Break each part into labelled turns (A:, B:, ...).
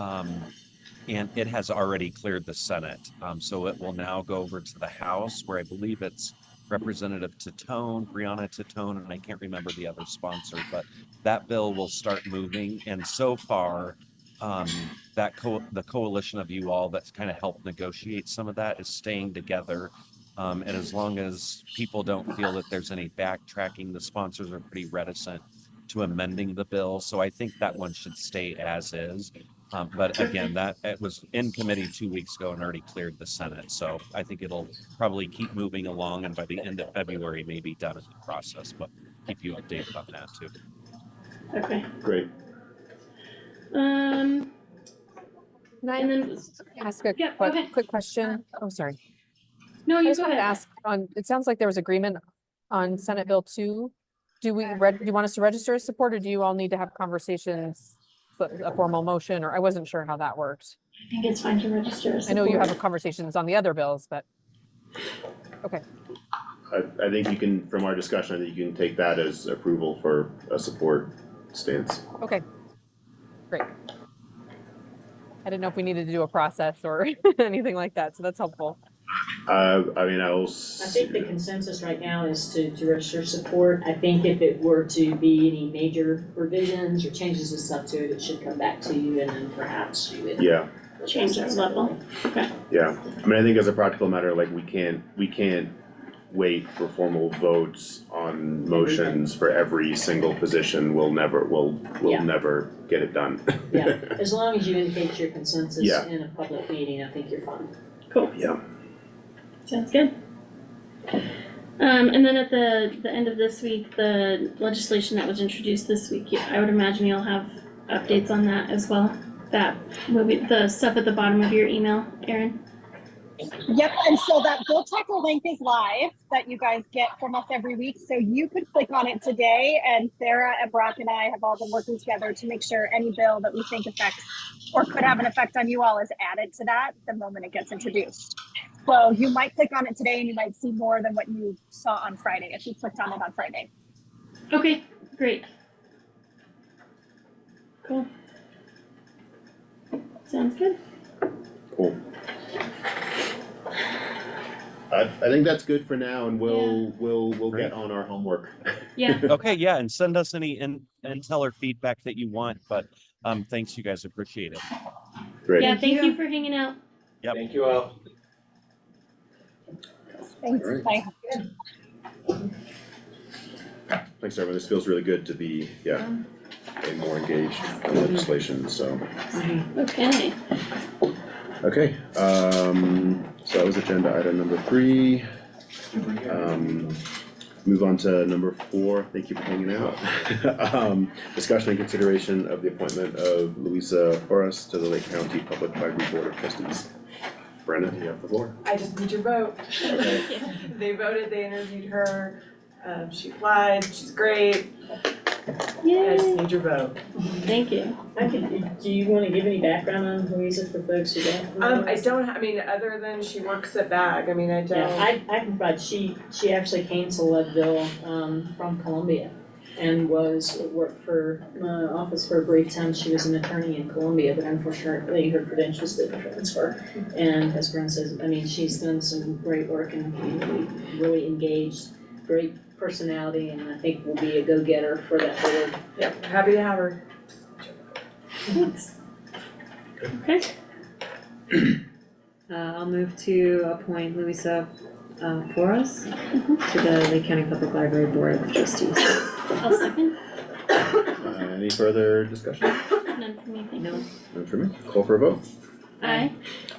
A: Um, and it has already cleared the Senate. Um, so it will now go over to the House where I believe it's Representative Tatone, Brianna Tatone, and I can't remember the other sponsor, but that bill will start moving. And so far, um, that co- the coalition of you all that's kind of helped negotiate some of that is staying together. Um, and as long as people don't feel that there's any backtracking, the sponsors are pretty reticent to amending the bill. So I think that one should stay as is. Um, but again, that it was in committee two weeks ago and already cleared the Senate. So I think it'll probably keep moving along and by the end of February, maybe done in the process, but keep you updated on that too.
B: Okay,
C: Great.
B: um,
D: Can I
B: and then,
D: ask a
B: Yeah, go
D: quick,
B: ahead.
D: quick question? Oh, sorry.
B: no,
D: I
B: you
D: just
B: go
D: wanted to
B: ahead.
D: ask on, it sounds like there was agreement on Senate Bill two. Do we, reg- do you want us to register as support or do you all need to have conversations? But a formal motion, or I wasn't sure how that worked.
B: I think it's fine to register as
D: I know you
B: support.
D: have conversations on the other bills, but
C: I, I think you can, from our discussion, I think you can take that as approval for a support stance.
D: okay. Great. I didn't know if we needed to do a process or anything like that, so that's helpful.
C: Uh, I mean, I will. s-
E: I think the consensus right now is to, to register support. I think if it were to be any major revisions or changes and stuff to it, it should come back to you and then perhaps you would.
C: Yeah,
B: Change that level.
C: yeah. I mean, I think as a practical matter, like, we can't, we can't wait for formal votes on motions for every single position. We'll never, we'll, we'll
E: Yeah.
C: never get it done.
E: Yeah, as long as you indicate your consensus
C: Yeah.
E: in a public meeting, I think you're fine.
C: Yeah.
B: Sounds good. Um, and then at the, the end of this week, the legislation that was introduced this week, you- I would imagine you'll have updates on that as well. That movie, the stuff at the bottom of your email, Erin.
F: Yep, and so that Bill Checker link is live that you guys get from us every week. So you could click on it today, and Sarah and Brock and I have all been working together to make sure any bill that we think affects or could have an effect on you all is added to that the moment it gets introduced. So you might click on it today, and you might see more than what you saw on Friday if you clicked on it on Friday.
B: Okay, great. Cool. Sounds good.
C: Cool. I, I think that's good for now and we'll, we'll, we'll
A: Great.
C: get on our homework.
B: Yeah,
A: Okay, yeah, and send us any in, intel or feedback that you want, but, um, thanks, you guys, appreciate it.
C: Great.
B: yeah, thank you for hanging out.
A: Yep.
G: Thank you all.
F: Thanks.
C: Great.
F: Bye.
C: Thanks, everyone. This feels really good to be, yeah, and more engaged in legislation, so,
B: Okay,
C: okay. Um, so that was agenda item number three. Um, move on to number four. Thank you for hanging out. Um, discussion and consideration of the appointment of Louisa Horace to the Lake County Public Library Board of Trustees. Brenna, you have the floor.
H: I just need your vote.
C: Okay.
H: They voted, they interviewed her, um, she applied, she's great, I just
B: yay,
H: need your vote.
B: thank you.
E: I can, do you wanna give any background on Louisa for folks who don't? know?
H: Um, I don't, ha- I mean, other than she works at BAG, I mean, I
E: Yeah,
H: don't,
E: I, I can provide, she, she actually came to Leadville, um, from Columbia and was, worked for, uh, office for a brief time, she was an attorney in Columbia, but unfortunately, her credentials didn't transfer. And as Brent says, I mean, she's done some great work in the community, really engaged, great personality, and I think will be a go-getter for that board.
H: yeah, happy to have her.
B: Thanks. Okay,
I: Uh, I'll move to appoint Louisa, uh, Porras to the Lake County Public Library Board of Trustees.
B: I'll second,
C: Uh, any further discussion?
B: none for me, thank you.
I: No.
C: None for me. Call for a vote.
B: Aye.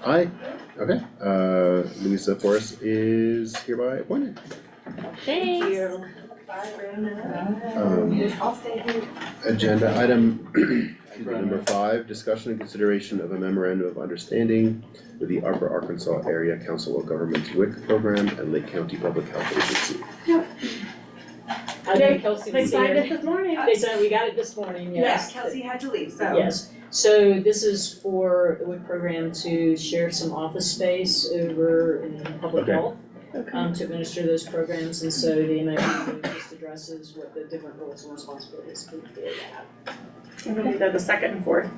C: Aye, okay, uh, Louisa Forrest is hereby appointed.
B: Thanks.
H: Bye, Brandon.
C: Um,
H: I'll stay here.
C: agenda item number five, discussion and consideration of a memorandum of understanding with the Upper Arkansas Area Council of Governments WIC program and Lake County Public Health Agency.
E: I know Kelsey They was signed here, it this morning. They signed, we got it this morning,
H: Yes,
E: yes.
H: Kelsey had to leave, so.
E: Yes, so this is for the WIC program to share some office space over in public
C: Okay.
E: health.
B: Okay.
E: Um, to administer those programs, and so the MOU just addresses what the different roles and responsibilities could be.
H: They're the second and fourth.